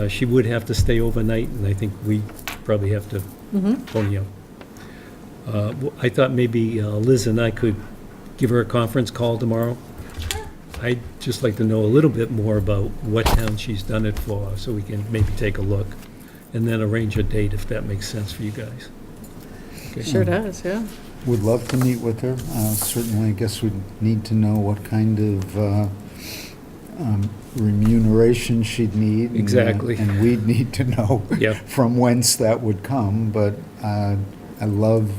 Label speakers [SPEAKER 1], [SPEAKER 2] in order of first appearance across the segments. [SPEAKER 1] Uh, She would have to stay overnight, and I think we probably have to
[SPEAKER 2] Mhm.
[SPEAKER 1] phone you. Uh, w- I thought maybe uh, Liz and I could give her a conference call tomorrow. I'd just like to know a little bit more about what town she's done it for, so we can maybe take a look, and then arrange a date if that makes sense for you guys. Okay.
[SPEAKER 2] Sure does, yeah.
[SPEAKER 3] Would love to meet with her. Uh, Certainly, I guess we'd need to know what kind of uh, um, remuneration she'd need. and, uh,
[SPEAKER 1] Exactly.
[SPEAKER 3] And we'd need to know
[SPEAKER 1] Yeah.
[SPEAKER 3] from whence that would come, but uh, I love,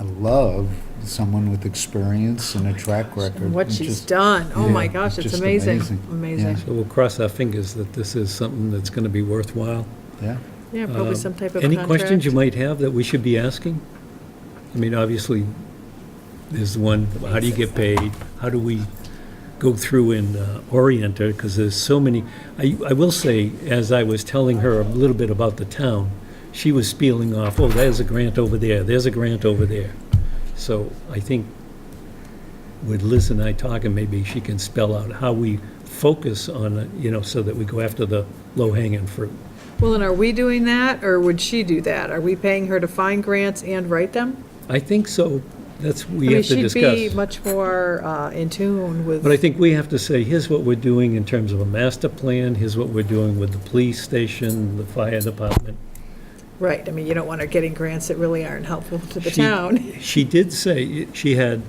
[SPEAKER 3] I love someone with experience and a track record.
[SPEAKER 2] And what
[SPEAKER 3] It's
[SPEAKER 2] she's
[SPEAKER 3] just-
[SPEAKER 2] done, oh my
[SPEAKER 3] yeah,
[SPEAKER 2] gosh,
[SPEAKER 3] it's
[SPEAKER 2] it's
[SPEAKER 3] just
[SPEAKER 2] amazing,
[SPEAKER 3] amazing.
[SPEAKER 2] amazing.
[SPEAKER 1] So we'll cross our fingers that this is something that's going to be worthwhile.
[SPEAKER 3] Yeah,
[SPEAKER 2] Yeah, probably
[SPEAKER 1] Um,
[SPEAKER 2] some type of
[SPEAKER 1] Any questions you might
[SPEAKER 2] contract.
[SPEAKER 1] have that we should be asking? I mean, obviously, there's the one, how do you get paid? How do we go through and uh, orient her? Because there's so many, I, I will say, as I was telling her a little bit about the town, she was spieling off, oh, there's a grant over there, there's a grant over there. So I think with Liz and I talking, maybe she can spell out how we focus on, it, you know, so that we go after the low-hanging fruit.
[SPEAKER 2] Well, and are we doing that, or would she do that? Are we paying her to find grants and write them?
[SPEAKER 1] I think so. That's,
[SPEAKER 2] I
[SPEAKER 1] we
[SPEAKER 2] mean,
[SPEAKER 1] have to
[SPEAKER 2] She'd be
[SPEAKER 1] discuss.
[SPEAKER 2] much more uh, in tune with.
[SPEAKER 1] But I think we have to say, here's what we're doing in terms of a master plan, here's what we're doing with the police station, the fire department.
[SPEAKER 2] Right, I mean, you don't want her getting grants that really aren't helpful to the
[SPEAKER 1] She-
[SPEAKER 2] town.
[SPEAKER 1] She did say, she had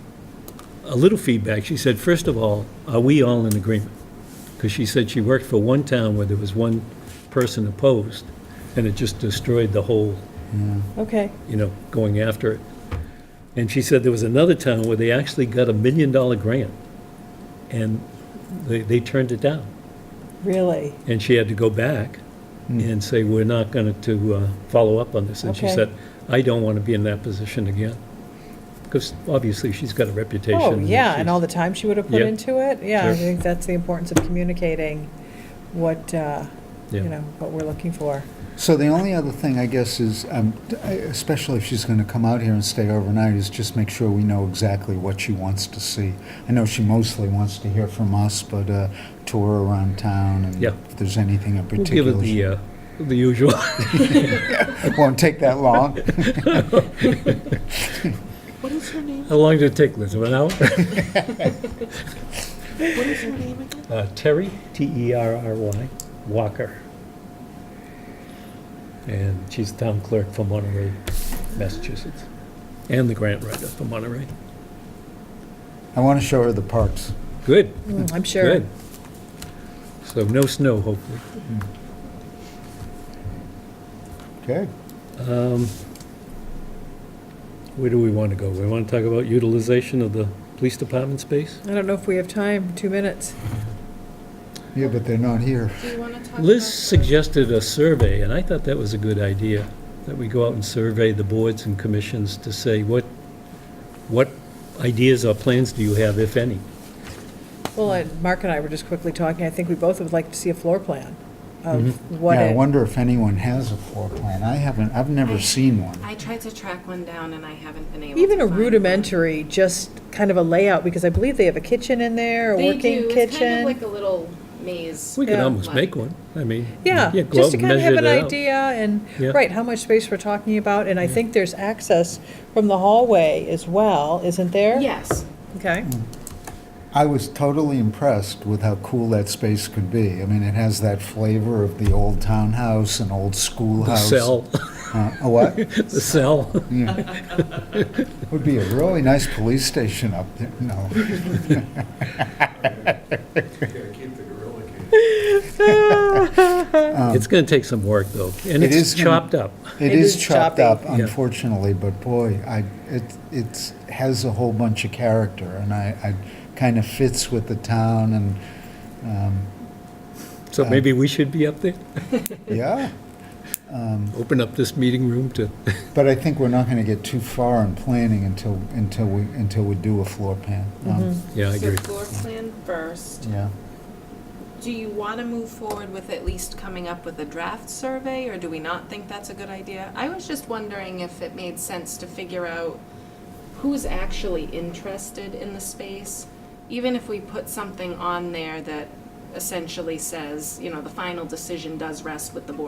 [SPEAKER 1] a little feedback. She said, first of all, are we all in agreement? Because she said she worked for one town where there was one person opposed, and it just destroyed the whole
[SPEAKER 3] yeah.
[SPEAKER 2] Okay,
[SPEAKER 1] you know, going after it. And she said there was another town where they actually got a million dollar grant, and they, they turned it down.
[SPEAKER 2] really?
[SPEAKER 1] And she had to go back
[SPEAKER 3] Mm.
[SPEAKER 1] and say, we're not going to uh, follow up on this. And she
[SPEAKER 2] Okay.
[SPEAKER 1] said, I don't want to be in that position again. Because obviously, she's got a reputation.
[SPEAKER 2] Oh, yeah,
[SPEAKER 1] she's-
[SPEAKER 2] and all the time she would have put
[SPEAKER 1] Yeah.
[SPEAKER 2] into it, yeah,
[SPEAKER 1] Sure.
[SPEAKER 2] I think that's the importance of communicating what, uh, you
[SPEAKER 1] Yeah.
[SPEAKER 2] know, what we're looking for.
[SPEAKER 3] So the only other thing, I guess, is, um, I- especially if she's going to come out here and stay overnight, is just make sure we know exactly what she wants to see. I know she mostly wants to hear from us, but a tour around town and
[SPEAKER 1] Yeah.
[SPEAKER 3] if there's anything in
[SPEAKER 1] We'll give
[SPEAKER 3] particular.
[SPEAKER 1] it the, uh, the usual.
[SPEAKER 3] It won't take that long.
[SPEAKER 4] What is her name?
[SPEAKER 1] How long did it take, Liz? An hour?
[SPEAKER 4] What is her name again?
[SPEAKER 1] Uh, Terry, E T-E-R-R-Y, Walker. And she's town clerk for Monterey, Massachusetts, and the grant writer for Monterey.
[SPEAKER 3] I want to show her the parks.
[SPEAKER 1] Good,
[SPEAKER 2] Mm, I'm sure.
[SPEAKER 1] good. So no snow, hopefully.
[SPEAKER 3] Okay.
[SPEAKER 1] Um, Where do we want to go? We want to talk about utilization of the police department space?
[SPEAKER 2] I don't know if we have time, two minutes.
[SPEAKER 3] Yeah, but they're not here.
[SPEAKER 4] Do you want to talk?
[SPEAKER 1] Liz
[SPEAKER 4] about the-
[SPEAKER 1] suggested a survey, and I thought that was a good idea, that we go out and survey the boards and commissions to say what, what ideas or plans do you have, if any?
[SPEAKER 2] Well, and Mark and I were just quickly talking, I think we both would like to see a floor plan
[SPEAKER 1] Mm-hmm.
[SPEAKER 2] of what,
[SPEAKER 3] Yeah, I
[SPEAKER 2] it-
[SPEAKER 3] wonder if anyone has a floor plan. I haven't, I've never seen one.
[SPEAKER 4] I tried to track one down and I haven't been able to.
[SPEAKER 2] even a
[SPEAKER 4] find one.
[SPEAKER 2] rudimentary, just kind of a layout, because I believe they have a kitchen in there, a
[SPEAKER 4] They
[SPEAKER 2] working
[SPEAKER 4] do.
[SPEAKER 2] kitchen.
[SPEAKER 4] It's kind of like a little maze.
[SPEAKER 1] We could
[SPEAKER 2] Yeah.
[SPEAKER 1] almost
[SPEAKER 4] Like-
[SPEAKER 1] make one, I mean. go
[SPEAKER 2] Yeah, just
[SPEAKER 1] out
[SPEAKER 2] to
[SPEAKER 1] and
[SPEAKER 2] kind of have
[SPEAKER 1] measure
[SPEAKER 2] an
[SPEAKER 1] that out.
[SPEAKER 2] idea and,
[SPEAKER 1] Yeah.
[SPEAKER 2] right, how much space we're talking about, and I think there's access from the hallway as well, isn't there?
[SPEAKER 4] Yes.
[SPEAKER 2] Okay,
[SPEAKER 3] I was totally impressed with how cool that space could be. I mean, it has that flavor of the old townhouse and old
[SPEAKER 1] The
[SPEAKER 3] schoolhouse.
[SPEAKER 1] cell,
[SPEAKER 3] Uh, a what?
[SPEAKER 1] the cell.
[SPEAKER 3] Would be a really nice police station up there. No.
[SPEAKER 1] It's going to take some work, though, and
[SPEAKER 3] It
[SPEAKER 1] it's
[SPEAKER 3] is gonna-
[SPEAKER 1] chopped up.
[SPEAKER 3] It is chopped
[SPEAKER 2] choppy.
[SPEAKER 3] up,
[SPEAKER 2] Yeah.
[SPEAKER 3] unfortunately, but boy, I, it, it's, has a whole bunch of character and I, I kind of fits with the town and, um,
[SPEAKER 1] So maybe we should be up there,
[SPEAKER 3] yeah.
[SPEAKER 1] open up this meeting room to,
[SPEAKER 3] But I think we're not going to get too far in planning until, until we, until we do a floor plan. Um,
[SPEAKER 1] yeah, I agree.
[SPEAKER 4] So floor plan first.
[SPEAKER 3] Yeah.
[SPEAKER 4] Do you want to move forward with at least coming up with a draft survey, or do we not think that's a good idea? I was just wondering if it made sense to figure out who's actually interested in the space, even if we put something on there that essentially says, you know, the final decision does rest with the board